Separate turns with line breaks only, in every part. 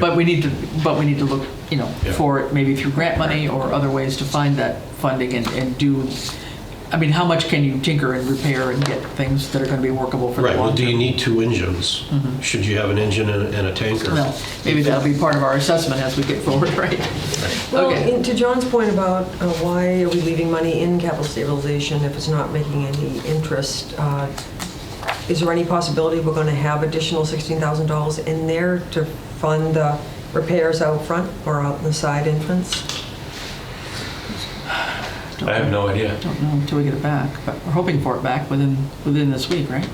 But we need to, but we need to look, you know,
Yeah.
for it, maybe through grant money or other ways to find that funding and, and do, I mean, how much can you tinker and repair and get things that are gonna be workable for the
Right,
long term? Mm-hmm.
well, do you need two engines? Should you have an engine and a- and a tanker?
Well, maybe that'll be part of our assessment as we get forward, right?
Well,
Okay.
and to John's point about uh, why are we leaving money in capital stabilization if it's not making any interest, uh, is there any possibility we're going to have additional $16,000 in there to fund the repairs out front or out in the side entrance?
I have no idea.
Don't know until we get it back, but we're hoping for it back within, within this week, right?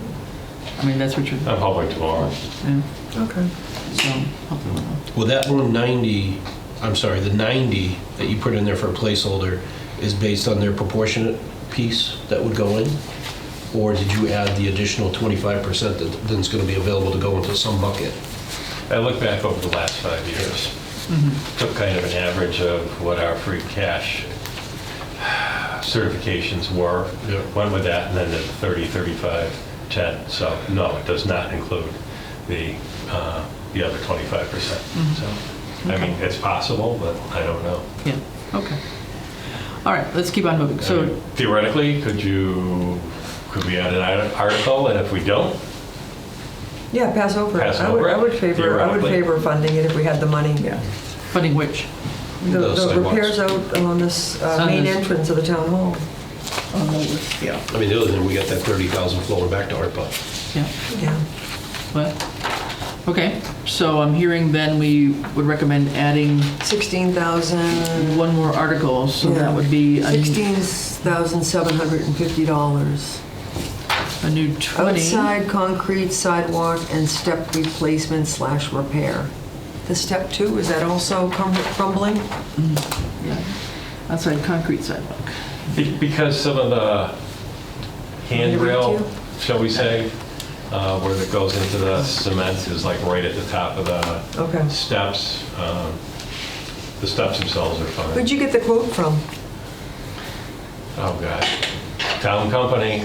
I mean, that's what you're,
I'm hoping tomorrow.
yeah,
Okay.
so, hopefully.
Well, that 190, I'm sorry, the 90 that you put in there for a placeholder is based on their proportionate piece that would go in? Or did you add the additional 25% that then's going to be available to go into some bucket?
I look back over the last five years, took kind of an average of what our free cash certifications were,
Yeah.
went with that, and then the 30, 35, 10. So no, it does not include the, uh, the other 25%. So, I mean, it's possible, but I don't know.
yeah, okay. All right, let's keep on moving.
I
So,
mean, Theoretically, could you, could we add an ar- article, and if we don't,
Yeah, pass over. it.
Pass
I would-
over it,
I would favor, I would
theoretically.
favor funding it if we had the money.
funding which?
The
Those
the
sidewalks.
repairs out on this uh,
Sun
main
is-
entrance of the town hall.
Yeah.
I mean, the other thing, we got that 30,000 flowing back to ARPA.
Yeah.
Yeah.
Well, okay, so I'm hearing then we would recommend adding
16,000.
one more article, so that would be a new-
$16,750.
a new 20.
Outside concrete sidewalk and step replacement slash repair. The step two, is that also crum- crumbling?
Yeah, Outside concrete sidewalk.
Be- Because some of the handrail,
Handrail.
shall we say, uh, where it goes into the cement is like right at the top of the
Okay.
steps. um, The steps themselves are fine.
Where'd you get the quote from?
Oh, God. Town company.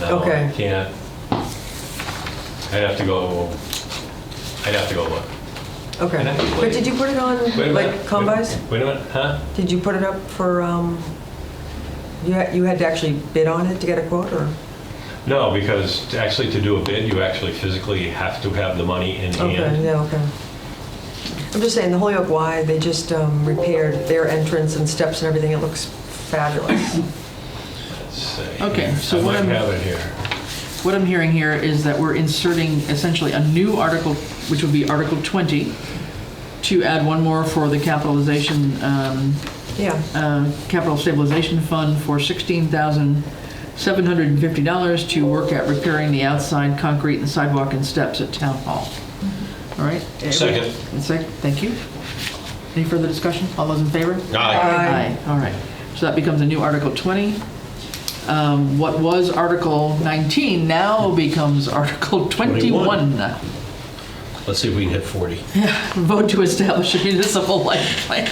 No,
Okay.
I can't. I'd have to go, I'd have to go look.
Okay.
And I think-
But did you put it on,
Wait a
like,
minute.
combis?
Wait a minute, huh?
Did you put it up for, um, you had, you had to actually bid on it to get a quote, or?
No, because to- actually to do a bid, you actually physically have to have the money in
Okay,
hand.
yeah, okay. I'm just saying, the Holyoke Y, they just um, repaired their entrance and steps and everything. It looks fabulous.
Let's see.
Okay, so
I
what
might
I'm-
have it here.
What I'm hearing here is that we're inserting essentially a new article, which would be Article 20, to add one more for the capitalization, um,
Yeah.
uh, capital stabilization fund for $16,750 to work at repairing the outside concrete and sidewalk and steps at Town Hall. All right?
Second.
And Second, thank you. Any further discussion? All those in favor?
Aye.
Aye.
All right. So that becomes a new Article 20. Um, What was Article 19 now becomes Article
21.
21.
Let's see if we can hit 40.
Vote to establish a municipal light plant.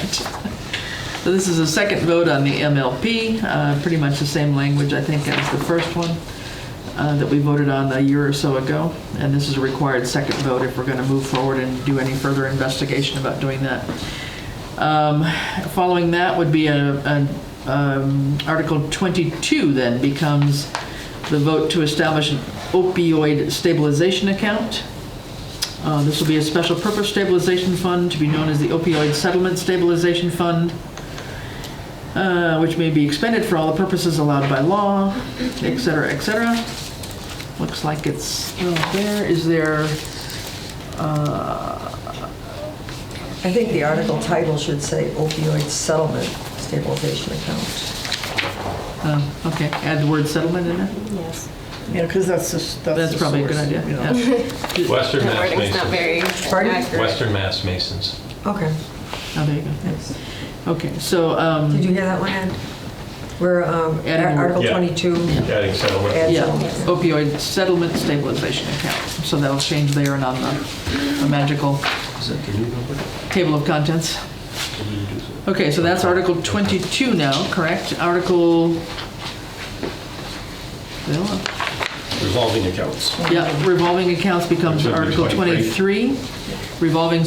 So this is a second vote on the MLP, uh, pretty much the same language, I think, as the first one uh, that we voted on a year or so ago. And this is a required second vote if we're going to move forward and do any further investigation about doing that. Um, Following that would be a, an, um, Article 22 then becomes the vote to establish an opioid stabilization account. Uh, This will be a special purpose stabilization fund to be known as the opioid settlement stabilization fund, uh, which may be expended for all the purposes allowed by law, et cetera, et cetera. Looks like it's still there. Is there, uh,
I think the article title should say opioid settlement stabilization account.
uh, okay, add the word settlement in there?
Yes.
Yeah, because that's the, s- that's the
That's probably a good
source,
idea.
you know.
yeah.
Western
The
Mass
wording's not
Masons.
very
Pardon?
accurate.
Western Mass Masons.
Okay.
Oh, there you go. Okay, so,
Did
um,
you hear that one, Ed? Where um,
Adding
Ar-
more-
Article
Yeah.
22
Adding settlement.
adds
yeah,
on.
Yes.
opioid settlement stabilization account. So that'll change there and on the the magical
Is that the new number?
table of contents.
Can we reduce it?
Okay, so that's Article 22 now, correct? Article, well,
Revolving accounts.
yeah, revolving accounts becomes
Which would be
Article
23.
23. Revolving